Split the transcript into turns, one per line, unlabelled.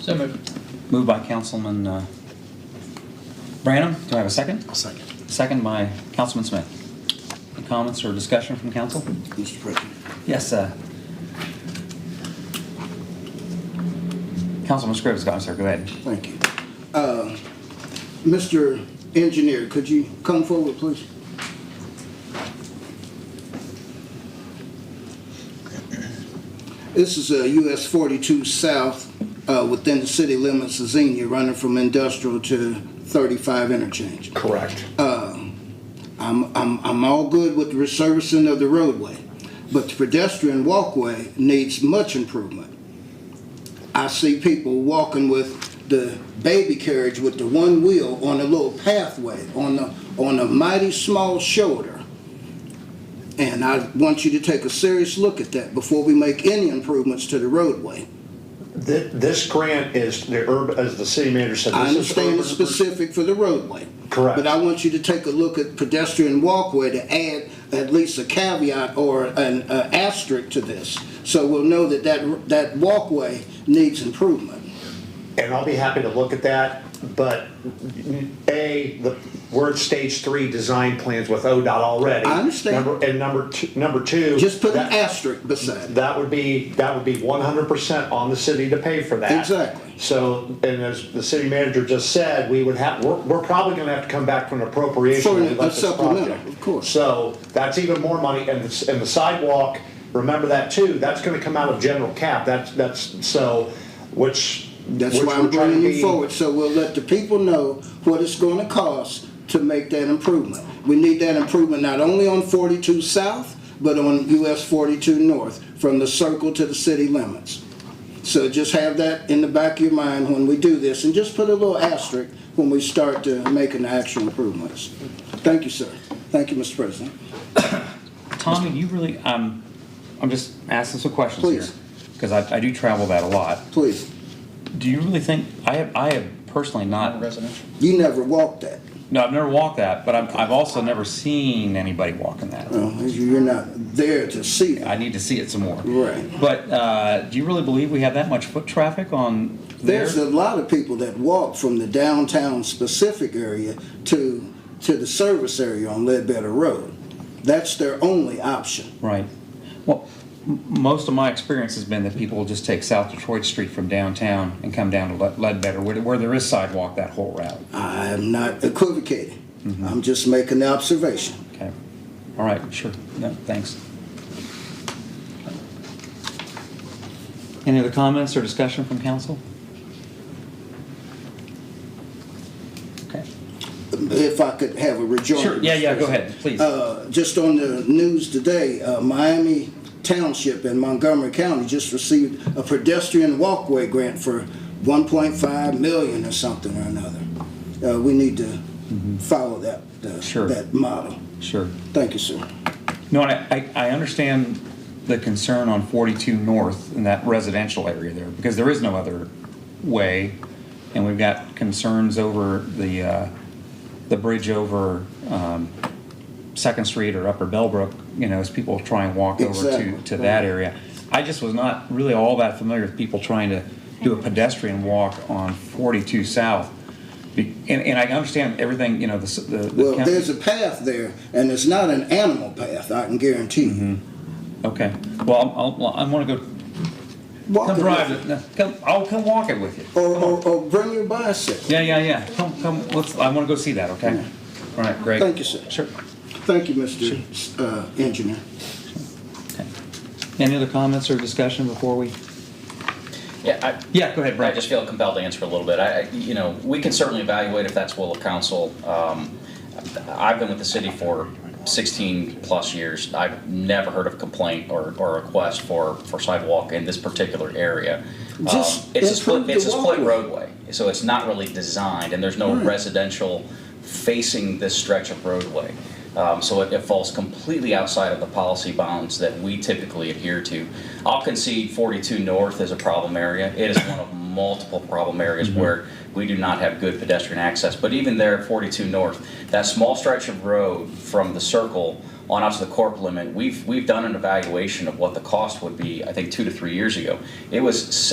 So moved.
Moved by Councilman uh, Branham. Do I have a second?
Second.
Second by Councilman Smith. Any comments or discussion from council?
Mr. President.
Yes, uh, Councilman Scrivens, I'm sorry, go ahead.
Thank you. Uh, Mr. Engineer, could you come forward, please? This is uh, US 42 South uh, within the city limits of Xenia, running from industrial to 35 interchange. Uh,
Correct.
I'm, I'm, I'm all good with the resurfacing of the roadway, but the pedestrian walkway needs much improvement. I see people walking with the baby carriage with the one wheel on a little pathway, on the, on a mighty small shoulder. And I want you to take a serious look at that before we make any improvements to the roadway.
Th- This grant is the urban, as the city manager said.
I
this is
understand it's
urban-
specific for the roadway.
Correct.
But I want you to take a look at pedestrian walkway to add at least a caveat or an uh, asterisk to this. So we'll know that that, that walkway needs improvement.
And I'll be happy to look at that, but A, the, we're in stage three design plans with ODOT already.
I understand.
Number- And number two, number two.
Just put an
that-
asterisk beside it.
That would be, that would be one hundred percent on the city to pay for that.
Exactly.
So, and as the city manager just said, we would have, we're, we're probably gonna have to come back for an appropriation.
For
when we
a
let this
supplemental,
project.
of course.
So that's even more money, and the, and the sidewalk, remember that too, that's gonna come out of general cap, that's, that's, so, which.
That's
which
why
we're
I'm
trying to
bringing
be-
you forward, so we'll let the people know what it's gonna cost to make that improvement. We need that improvement not only on forty-two south, but on US forty-two north, from the circle to the city limits. So just have that in the back of your mind when we do this, and just put a little asterisk when we start to making the actual improvements. Thank you, sir. Thank you, Mr. President.
Tommy, you really, um, I'm just asking some questions here.
Please.
Because I, I do travel that a lot.
Please,
Do you really think, I have, I have personally not,
Residential.
you never walked that.
no, I've never walked that, but I'm, I've also never seen anybody walking that.
Well, You're not there to see
I
that.
need to see it some more.
Right.
But uh, do you really believe we have that much foot traffic on there?
There's a lot of people that walk from the downtown specific area to, to the service area on Ledbetter Road. That's their only option.
Right. Well, m- most of my experience has been that people will just take South Detroit Street from downtown and come down to Le- Ledbetter, where, where there is sidewalk that whole route.
I am not equivocating. I'm just making the observation.
Okay. All right, sure. No, thanks. Any other comments or discussion from council? Okay.
If I could have a rejoinder.
Sure, yeah,
Mr.
yeah, go
President.
ahead, please.
Uh, just on the news today, uh, Miami Township in Montgomery County just received a pedestrian walkway grant for 1.5 million or something or another. Uh, we need to follow that, uh,
Sure.
that model.
Sure.
Thank you, sir.
No, and I, I I understand the concern on 42 North in that residential area there, because there is no other way. And we've got concerns over the, uh, the bridge over um, Second Street or Upper Bellbrook, you know, as people try and walk over to,
Exactly.
to that area. I just was not really all that familiar with people trying to do a pedestrian walk on 42 South. Be- And, and I understand everything, you know, the, s- the. the
Well,
county-
there's a path there, and it's not an animal path, I can guarantee you.
Okay, well, I'll, I'll, I wanna go
Walk
Come
it
drive
with
it. No, Come, I'll come walk it with you.
you. Or, or, or bring your bicycle.
Yeah, yeah, yeah. Come, come. Let's. I want to go see that. Okay. All right. Great.
Thank you, sir.
Sure.
Thank you, Mr. uh, Engineer.
Okay. Any other comments or discussion before we?
Yeah, I,
Yeah. Go ahead,
I
Brad.
just feel compelled to answer a little bit. I, I- you know, we can certainly evaluate if that's will of council. Um, I've been with the city for 16 plus years. I've never heard of complaint or, or request for, for sidewalk in this particular area. Um,
Just
It's a split,
improve
it's a
the
split
walkway.
roadway, so it's not really designed, and there's no residential facing this stretch of roadway. Um, So it it falls completely outside of the policy bounds that we typically adhere to. I'll concede 42 North is a problem area. It is one of multiple problem areas where we do not have good pedestrian access. But even there at 42 North, that small stretch of road from the circle on out to the corp limit, we've, we've done an evaluation of what the cost would be, I think, two to three years ago. It was